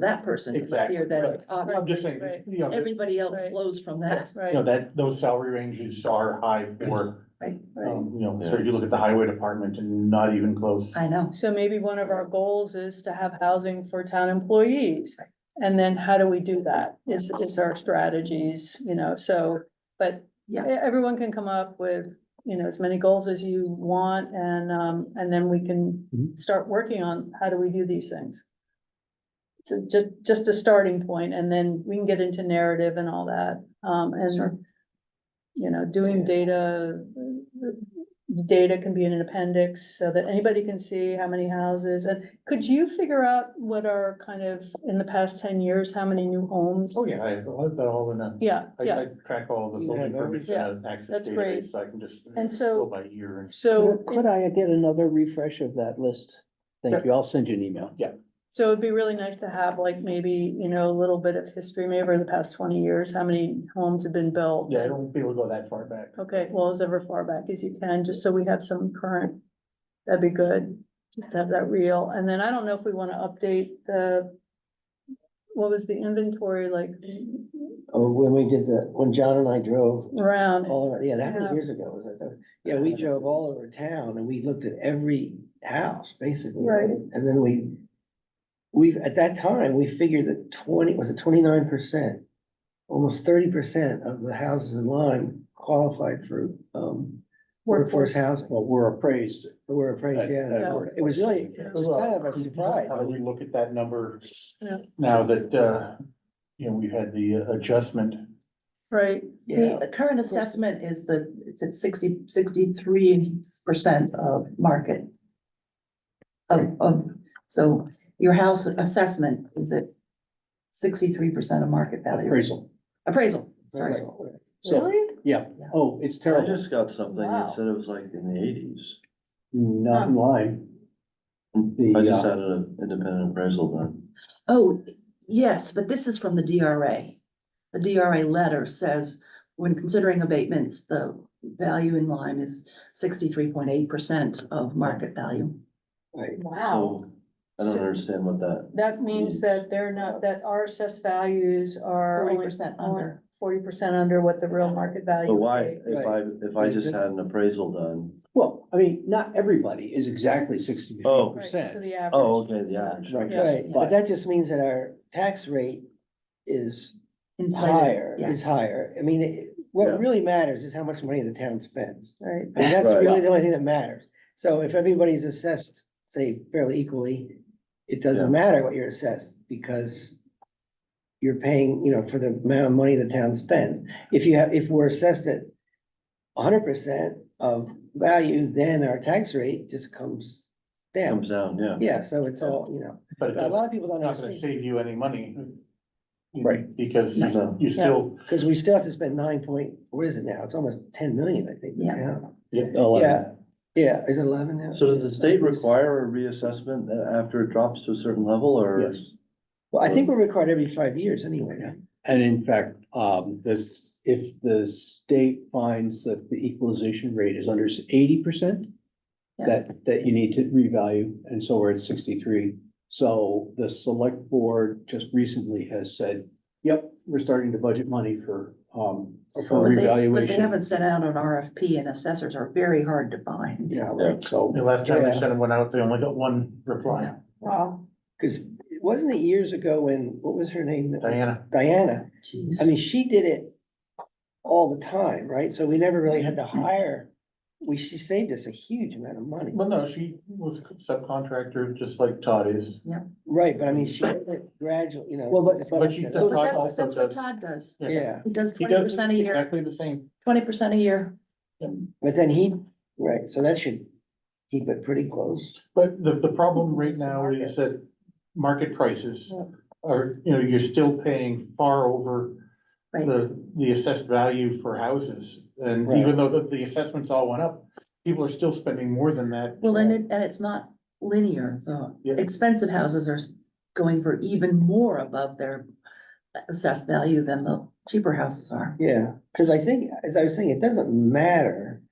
that person to the Exactly, fear right. that, I'm obviously, just saying, Right. you know, you everybody else Right. flows from that. know, Right, that, those salary ranges are high for, Right, right. um, you know, so if you look at the highway department and not even close. I know. so maybe one of our goals is to have housing for town employees. And then how do we do that? Is, is our strategies, you know, so, but Yeah. e- everyone can come up with, you know, as many goals as you want and, um, and then we can Mhm. start working on how do we do these things. So just, just a starting point and then we can get into narrative and all that, um, Sure. and you know, doing data, data can be in an appendix so that anybody can see how many houses. And could you figure out what are kind of, in the past ten years, how many new homes? Oh, yeah, I have that all in a, Yeah, I, yeah. I track all the Yeah, building that'd be- permits and access that's great. database, so I can just. And so- go By year and. So, Could I get another refresh of that list? Thank Sure. you. I'll send you an email. so it'd be really nice to have like maybe, you know, a little bit of history, maybe over the past twenty years, how many homes have been built? Yeah, I don't be able to go that far back. Okay, well, as ever far back as you can, just so we have some current, that'd be good, just have that real, and then I don't know if we wanna update the. What was the inventory like Oh, when we did the, when John and I drove round, Oh, all around, yeah, that Yeah. was years ago, was it? though? Yeah, we drove all over town and we looked at every house, basically. Right. And then we, we, at that time, we figured that twenty, was it twenty-nine percent? Almost thirty percent of the houses in Lyme qualified for, um, workforce housing, Well, we're appraised. were appraised, yeah. Yeah. It was really, it was kind of a surprise. How do we look at that number? Yeah. Now that, uh, you know, we've had the uh, adjustment. right? Yeah. The current assessment is the, it's at sixty, sixty-three percent of market. Of, of, so your house assessment is at sixty-three percent of market value, Appraisal. appraisal, sorry. Appraisal. So, yeah. Oh, it's I terrible. just got something Wow. that said it was like in the eighties. Not in line. The, I just uh, had an independent appraisal done. Oh, yes, but this is from the DRA. The DRA letter says, when considering abatements, the value in Lyme is sixty-three point eight percent of market value. So I don't So- understand what that, That means that they're not, that our assessed values are Forty only percent under. forty percent under what the real market value. but why, is. if I, if I just had an appraisal done, Well, I mean, not everybody is exactly sixty-three Oh. Right, so percent. the average. oh, okay, the average. Right, Yeah. Right, Yeah. but that just means that our tax rate is Inflated, higher, yes. is higher. I mean, it- what Yeah. really matters is how much money the town spends. Right, I mean, that's Right. really the only thing that matters. So if everybody's assessed, say fairly equally, it doesn't Yeah. matter what you're assessed because you're paying, you know, for the amount of money the town spends. If you have, if we're assessed at hundred percent of value, then our tax rate just comes Comes down. down, yeah. Yeah, so it's all, you know, But it a doesn't- lot of people don't not gonna understand, save you any money. you know, Right. Because you- No. you still, because we still have to spend nine point, what is it now? It's almost ten million, I think. Yeah. Oh, Yeah, yeah, is it eleven now? So does the state require a reassessment a- after it drops to a certain level or? Yes. Well, I think we're required every five years anyway, yeah. And in fact, um, this, if the state finds that the equalization rate is under eighty percent, Yeah. that, that you need to revalue, and so we're at sixty-three. So the select board just recently has said, yep, we're starting to budget money for, um, But for they- But they revaluation. haven't sent out an RFP and assessors are very hard to find. Yeah, right, so. the last time Yeah. I sent one out, they only got one reply, wow. Because wasn't it years ago when, what was her name? that- Diana. Diana. I Jeez. mean, she did it all the time, right? So we never really had to hire. We, she saved us a huge amount of money. Well, no, she was a subcontractor, just like Todd is. Right, but I mean, she did it gradually, you know. Well, but- just- But she- But Todd that's, also that's what does- Todd does. Yeah, He does He twenty does percent a year, exactly the same. twenty percent a year. but then he, right, so that should keep it pretty close. But the, the problem right now is that market prices are, you know, you're still paying far over Right. the, the assessed value for houses. And Right. even though the, the assessments all went up, people are still spending more than that. Well, and it, and it's not linear, the Yeah. expensive houses are going for even more above their assessed value than the cheaper houses are. Yeah, because I think, as I was saying, it doesn't matter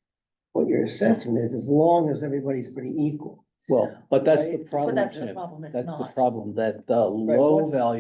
what your assessment is, as long as everybody's pretty equal. Well, but that's the Right. problem, But that's the Tim. problem, it's That's the not. problem, that the Right, low what's- value